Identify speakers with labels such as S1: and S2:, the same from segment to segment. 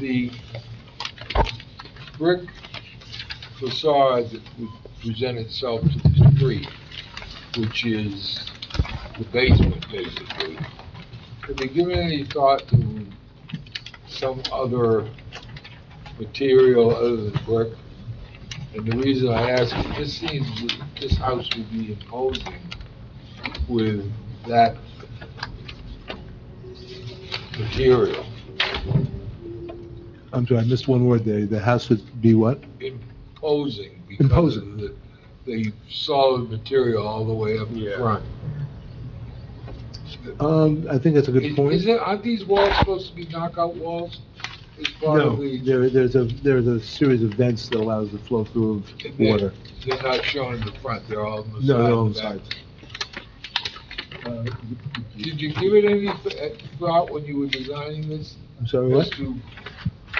S1: the brick facade that would present itself to the street, which is the basement, basically, have you given any thought to some other material other than brick? And the reason I ask, is this seems, this house would be imposing with that material.
S2: I'm sorry, I missed one word there. The house would be what?
S1: imposing because of
S2: Imposing.
S1: the, the solid material all the way up
S3: Yeah.
S1: front.
S2: Um, I think that's a good
S1: Is-
S2: point.
S1: Is it, aren't these walls supposed to be knockout walls? As part of
S2: No,
S1: the,
S2: there, there's a, there's a series of vents that allows the flow through of
S1: Yeah.
S2: water.
S1: they're not shown in the front, they're all on the side.
S2: No, they're on
S1: and
S2: the
S1: back.
S2: sides. Uh,
S1: Did you give it any th- thought when you were designing this?
S2: I'm sorry,
S1: As
S2: what?
S1: to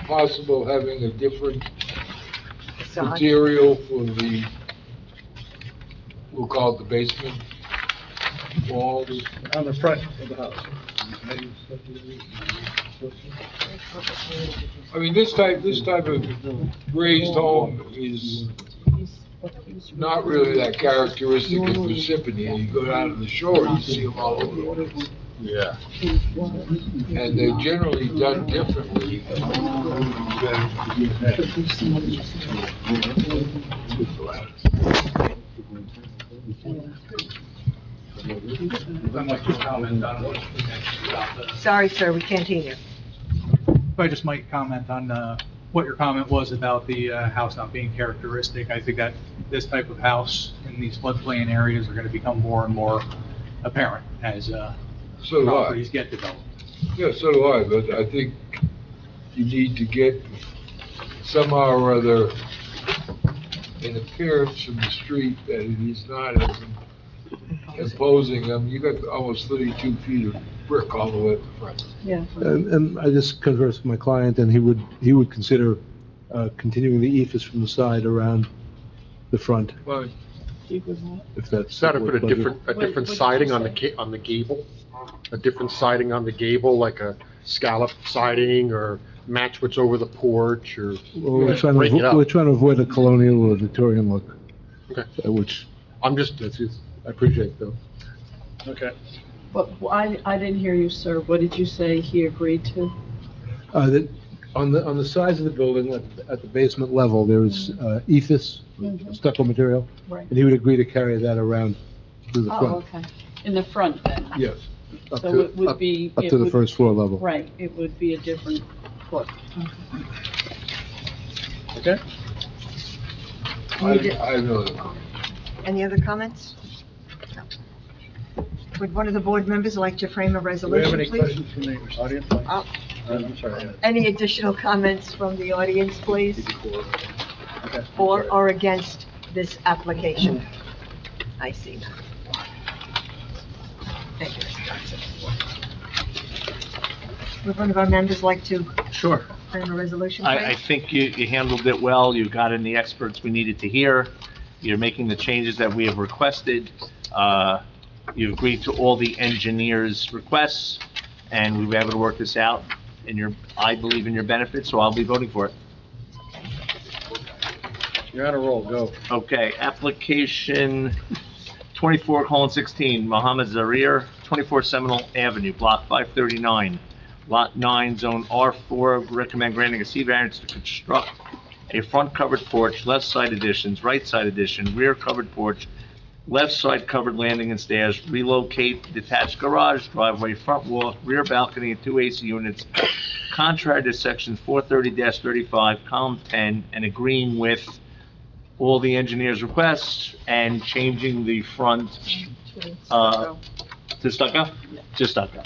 S1: possible having a different
S4: Facade.
S1: material for the, we'll call it the basement walls?
S5: on the front of the house.
S1: I mean, this type, this type of raised home is not really that characteristic of Parsippany. You go down to the shore, you see them all over the place.
S3: Yeah.
S1: And they're generally done differently than
S5: I'd like to comment on what we mentioned about the-
S4: Sorry, sir, we can't hear you.
S5: If I just might comment on uh, what your comment was about the uh, house not being characteristic. I think that this type of house in these floodplain areas are going to become more and more apparent as uh,
S1: So do I.
S5: properties get developed.
S1: Yeah, so do I, but I think you need to get somehow or other an appearance from the street that it is not as imposing. I mean, you got almost thirty-two feet of brick all the way up the front.
S4: Yeah.
S2: And, and I just conversed with my client, and he would, he would consider uh, continuing the ephes from the side around the front,
S1: Well,
S2: if that's.
S3: Instead of
S2: what
S3: put a
S2: budget-
S3: different, a
S6: What-
S3: different
S6: what did you
S3: siding on the,
S6: say?
S3: ga- on the gable, a different siding on the gable, like a scallop siding or match what's over the porch or,
S2: Well, we're trying to,
S3: Break it up.
S2: avo- we're trying to avoid a colonial or Victorian look,
S3: okay,
S2: uh, which,
S3: I'm just,
S2: that's, it. I appreciate though.
S5: Okay.
S6: But I, I didn't hear you, sir. What did you say he agreed to?
S2: Uh, that, on the, on the sides of the building, at- at the basement level, there is, uh, ephes, stucco material,
S6: Mm-hmm. Right.
S2: and he would agree to carry that around to the
S6: Oh,
S2: front.
S6: okay. In the front then?
S2: Yes. Up
S6: So
S2: to-
S6: it would
S2: up-
S6: be-
S2: Up
S6: it
S2: to the
S6: would-
S2: first floor level.
S6: Right, it would be a different look.
S5: Okay.
S1: I, I know that.
S4: Any other comments? No. Would one of the board members like to frame a resolution, please?
S5: from the audience?
S4: Uh,
S5: I'm sorry.
S4: Any additional comments from the audience, please? For or against this application? I see none. Thank you, Mr. Johnson. Would one of our members like to
S7: Sure.
S4: frame a resolution,
S7: I, I
S4: please?
S7: think you, you handled it well. You got in the experts we needed to hear. You're making the changes that we have requested. Uh, you agreed to all the engineers' requests, and we were able to work this out in your, I believe in your benefit, so I'll be voting for it.
S3: you're on a roll, go.
S7: Okay, application twenty-four colon sixteen, Mohammed Zarir, twenty-four Seminole Avenue, block five thirty-nine, lot nine, zone R four, recommend granting a C variance to construct a front covered porch, left side additions, right side addition, rear covered porch, left side covered landing and stairs, relocate detached garage, driveway, front wall, rear balcony, and two AC units, contrary to section four thirty thirty-five, column ten, and agreeing with all the engineer's requests and changing the front Uh, to stucco? To stucco.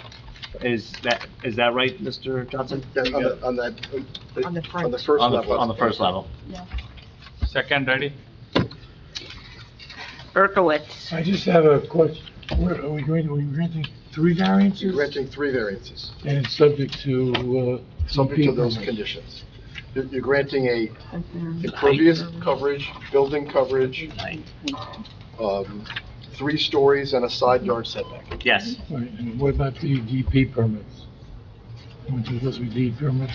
S7: Is that, is that right, Mr. Johnson?
S5: on the-
S3: on that,
S4: On the front.
S3: first
S7: On the, on the first level.
S5: Second, ready?
S4: Berkowitz.
S8: I just have a question. What, are we going, to- are we granting three variances?
S3: three variances.
S8: And it's subject to, uh...
S3: subject to those
S8: DP.
S3: conditions. You're you're granting a impervious coverage, building coverage, um, three stories and a side yard setback.
S7: Yes.
S8: E Right, and what about the DP permits? Aren't you supposed to be DP permits